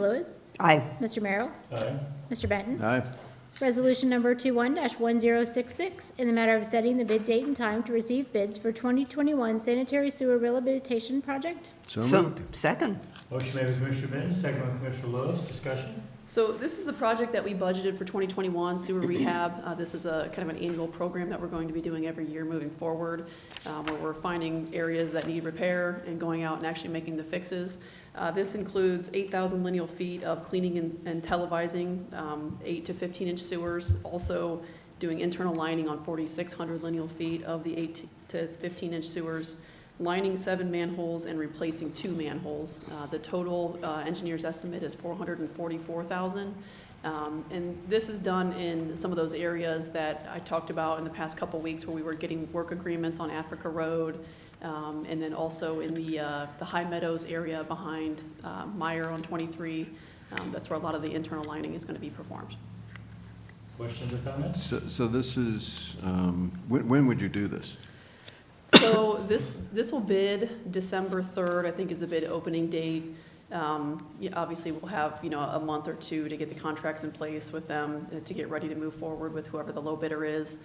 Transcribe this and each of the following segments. Lewis. Aye. Mr. Merrill. Aye. Mr. Benton. Aye. Resolution number 21-1066, in the matter of setting the bid date and time to receive bids for 2021 sanitary sewer rehabilitation project. So moved. Second. Motion made by Commissioner Benton, second by Commissioner Lewis, discussion? So this is the project that we budgeted for 2021, sewer rehab. Uh, This is a kind of an annual program that we're going to be doing every year moving forward, uh, where we're finding areas that need repair and going out and actually making the fixes. Uh, This includes 8,000 lineal feet of cleaning and- and televising, um, 8 to 15-inch sewers, also doing internal lining on 4,600 lineal feet of the 8 to 15-inch sewers, lining seven manholes and replacing two manholes. Uh, The total uh, engineer's estimate is 444,000. Um, And this is done in some of those areas that I talked about in the past couple weeks where we were getting work agreements on Africa Road, um, and then also in the, uh, the High Meadows area behind uh, Meyer on 23. Um, That's where a lot of the internal lining is going to be performed. Questions or comments? So so this is, um, when when would you do this? So this, this will bid December 3rd, I think is the bid opening date. Um, yeah, Obviously, we'll have, you know, a month or two to get the contracts in place with them, uh, to get ready to move forward with whoever the low bidder is.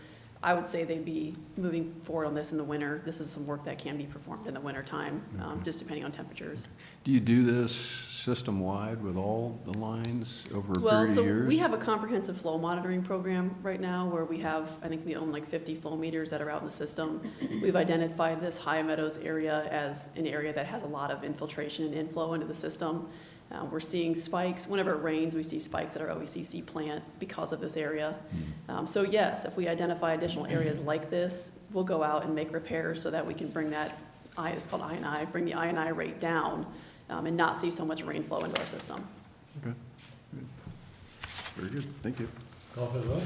I would say they'd be moving forward on this in the winter. This is some work that can be performed in the wintertime, um, just depending on temperatures. Do you do this system-wide with all the lines over a Well, period of so we years? have a comprehensive flow monitoring program right now where we have, I think we own like 50 flow meters that are out in the system. We've identified this High Meadows area as an area that has a lot of infiltration and inflow into the system. Uh, We're seeing spikes, whenever it rains, we see spikes at our OECC plant because of this area. Hmm. Um, So yes, if we identify additional areas like this, we'll go out and make repairs so that we can bring that, I- it's called INI, bring the INI rate down um, and not see so much rain flow into our system. Okay. Good. Very good, thank you. Call for the vote?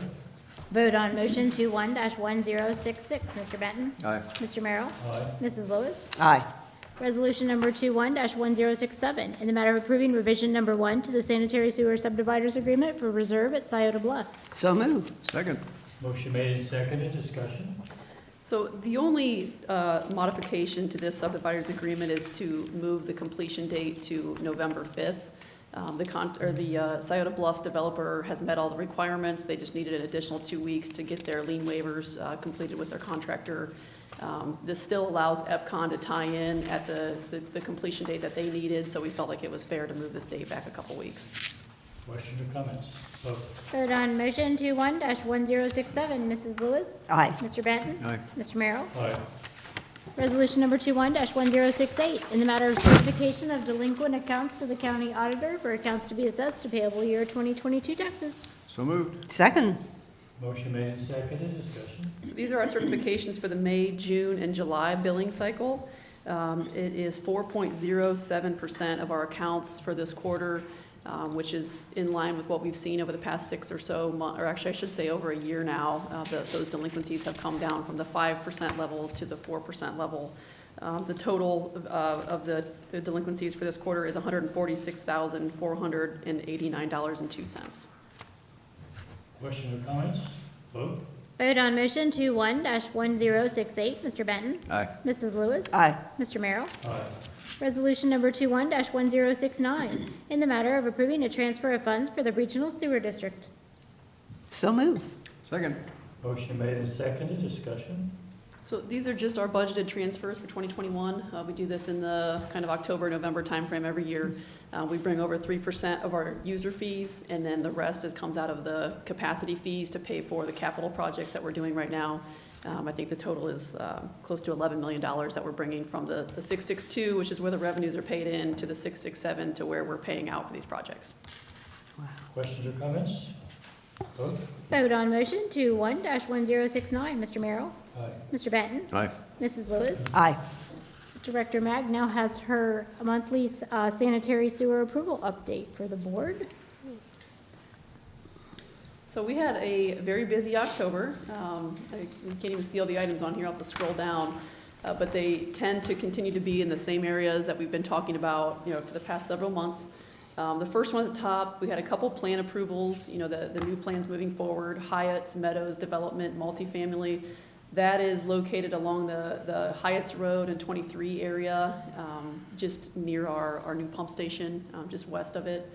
Vote on motion 21-1066, Mr. Benton. Aye. Mr. Merrill. Aye. Mrs. Lewis. Aye. Resolution number 21-1067, in the matter of approving revision number one to the sanitary sewer subdividers agreement for reserve at Scioto Bluff. So moved. Second. Motion made and seconded, discussion? So the only uh, modification to this subdivider's agreement is to move the completion date to November 5th. Um, The con, or the uh, Scioto Bluffs developer has met all the requirements. They just needed an additional two weeks to get their lien waivers uh, completed with their contractor. Um, This still allows EPCON to tie in at the, the- the completion date that they needed, so we felt like it was fair to move this date back a couple weeks. Questions or comments? Vote. Vote on motion 21-1067, Mrs. Lewis. Aye. Mr. Benton. Aye. Mr. Merrill. Aye. Resolution number 21-1068, in the matter of certification of delinquent accounts to the county auditor for accounts to be assessed to payable year 2022 taxes. So moved. Second. Motion made and seconded, discussion? So these are our certifications for the May, June, and July billing cycle. Um, It is 4.07% of our accounts for this quarter, um, which is in line with what we've seen over the past six or so, mon- or actually, I should say, over a year now. Uh, the- Those delinquencies have come down from the 5% level to the 4% level. Um, The total of- uh, of the the delinquencies for this quarter is $146,489.02. Questions or comments? Vote. Vote on motion 21-1068, Mr. Benton. Aye. Mrs. Lewis. Aye. Mr. Merrill. Aye. Resolution number 21-1069, in the matter of approving a transfer of funds for the regional sewer district. So moved. Second. Motion made and seconded, discussion? So these are just our budgeted transfers for 2021. Uh, We do this in the kind of October, November timeframe every year. Uh, We bring over 3% of our user fees, and then the rest is, comes out of the capacity fees to pay for the capital projects that we're doing right now. Um, I think the total is um, close to $11 million that we're bringing from the the 662, which is where the revenues are paid in, to the 667, to where we're paying out for these projects. Questions or comments? Vote. Vote on motion 21-1069, Mr. Merrill. Aye. Mr. Benton. Aye. Mrs. Lewis. Aye. Director Mag now has her monthly uh, sanitary sewer approval update for the board. So we had a very busy October. Um, I you can't even see all the items on here, I'll have to scroll down. Uh, But they tend to continue to be in the same areas that we've been talking about, you know, for the past several months. Um, The first one at the top, we had a couple plan approvals, you know, the, the new plans moving forward, Hyatt's, Meadows Development, multifamily. That is located along the, the Hyatt's Road and 23 area, um, just near our, our new pump station, um, just west of it.